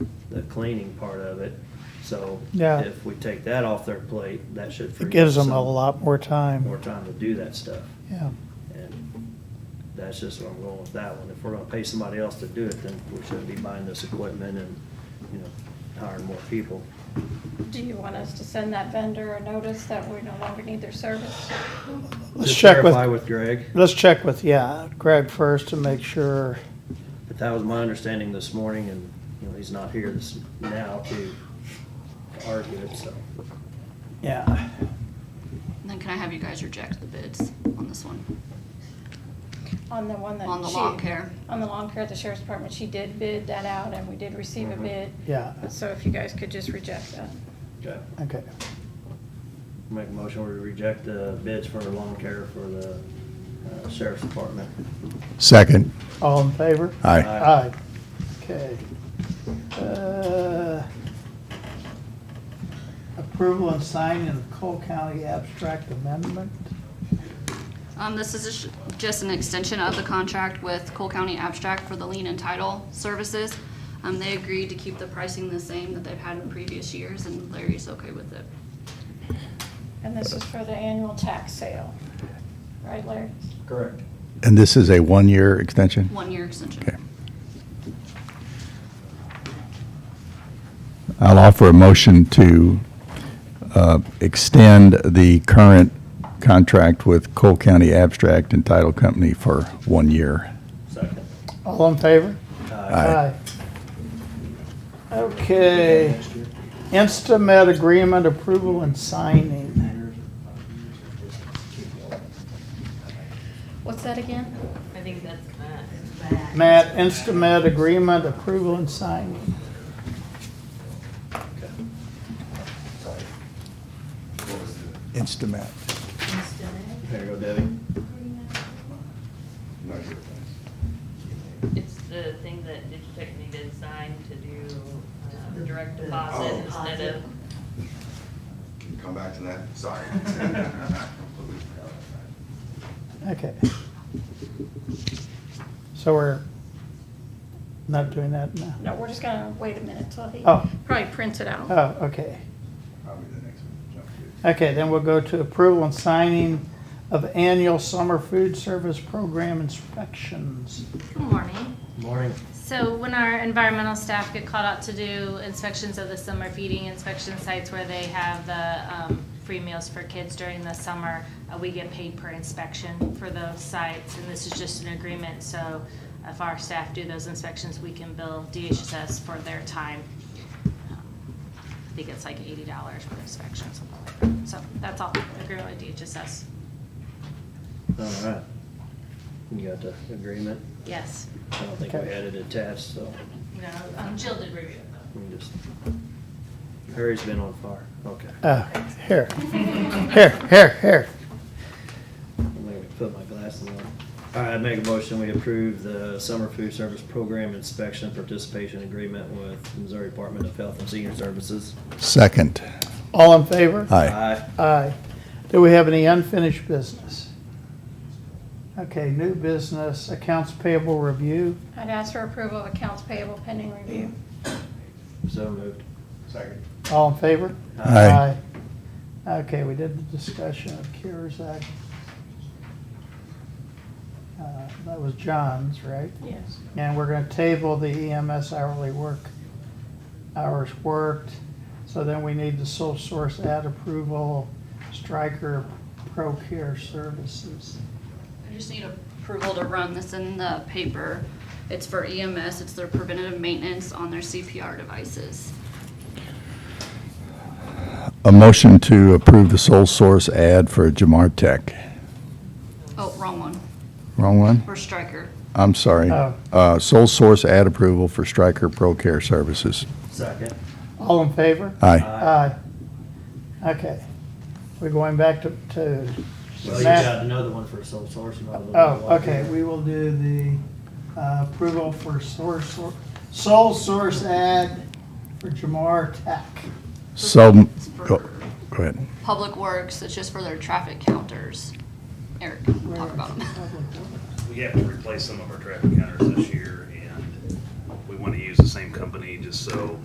cleaning part of it. So Yeah. if we take that off their plate, that should free It up gives them some a lot more more time. time to do that stuff. Yeah, And that's just where I'm going with that one. If we're gonna pay somebody else to do it, then we shouldn't be buying this equipment and, you know, hiring more people. Do you want us to send that vendor a notice that we no longer need their service? let's Just check Clarify with, with Greg, let's check with, yeah, Greg first to make sure, but that was my understanding this morning and, you know, he's not here this, now to argue it, so. yeah. Then can I have you guys reject the bids on this one? On the one that she. On the lawn care? On the lawn care at the sheriff's department, she did bid that out and we did receive a Mhm. bid. Mm-hmm. Yeah. So if you guys could just reject that. Okay. Okay, Make a motion, we reject the bids for lawn care for the uh, sheriff's department. Second. all in favor? Aye. Aye. Okay. Uh, Approval and signing of Cole County Abstract Amendment? Um, this is just- just an extension of the contract with Cole County Abstract for the lien and title services. Um, they agreed to keep the pricing the same that they've had in previous years, and Larry's okay with it. And this is for the annual tax sale. Right, Larry? Correct. And this is a one-year extension? One-year extension. Okay. I'll offer a motion to uh, extend the current contract with Cole County Abstract and Title Company for one year. Second. All in favor? Uh, Aye. Okay. Instamet agreement approval and signing. What's that again? I think that's Matt, Instamet agreement approval and signing. Instamat. There you go, Debbie. It's the thing that Digitech needed signed to do uh, direct deposit instead of, Can you come back to that? Sorry. Completely forgot about that. Okay. So we're not doing that now? No, we're just gonna wait a minute till he Oh. probably prints it out. Oh, okay. Probably the next one. Jump to. Okay, then we'll go to approval and signing of annual summer food service program inspections. Good morning. Morning. So when our environmental staff get called out to do inspections of the summer feeding inspection sites where they have the um, free meals for kids during the summer, uh, we get paid per inspection for those sites. And this is just an agreement, so if our staff do those inspections, we can bill DHSS for their time. Um, I think it's like eighty dollars per inspection, something like that. So that's all, agreement with DHSS. All right. You got the agreement? Yes. I don't think we Okay. had it attached, so You know, um, Jill did review it though. we can just, Harry's been on fire. Okay. Uh, here, here, here, here. I'm gonna put my glasses on. All right, I make a motion, we approve the summer food service program inspection participation agreement with Missouri Department of Health and Senior Services. Second. All in favor? Aye. Aye. Do we have any unfinished business? Okay, new business, accounts payable review. I'd ask for approval of accounts payable pending review. So moved. Second. All in favor? Aye. Aye. Okay, we did the discussion of CARES Act. Uh, That was John's, right? Yes. And we're gonna table the EMS hourly work, hours worked. So then we need the sole source ad approval, Stryker Pro Care Services. I just need approval to run this in the paper. It's for EMS, it's their preventative maintenance on their CPR devices. A motion to approve the sole source ad for Jamar Tech. Oh, wrong one, Wrong one? for Stryker. I'm sorry. Oh. Uh, Sole source ad approval for Stryker Pro Care Services. Second. All in favor? Aye. Aye. Okay. We're going back to, to Well, you Matt. got another one for sole source. and all the- Oh, okay, we will do the uh, approval for source, sole source ad for Jamar Tech. So, It's for go go ahead. Public Works, it's just for their traffic counters. Eric, can talk about them. We have to replace some of our traffic counters this year, and we want to use the same company just so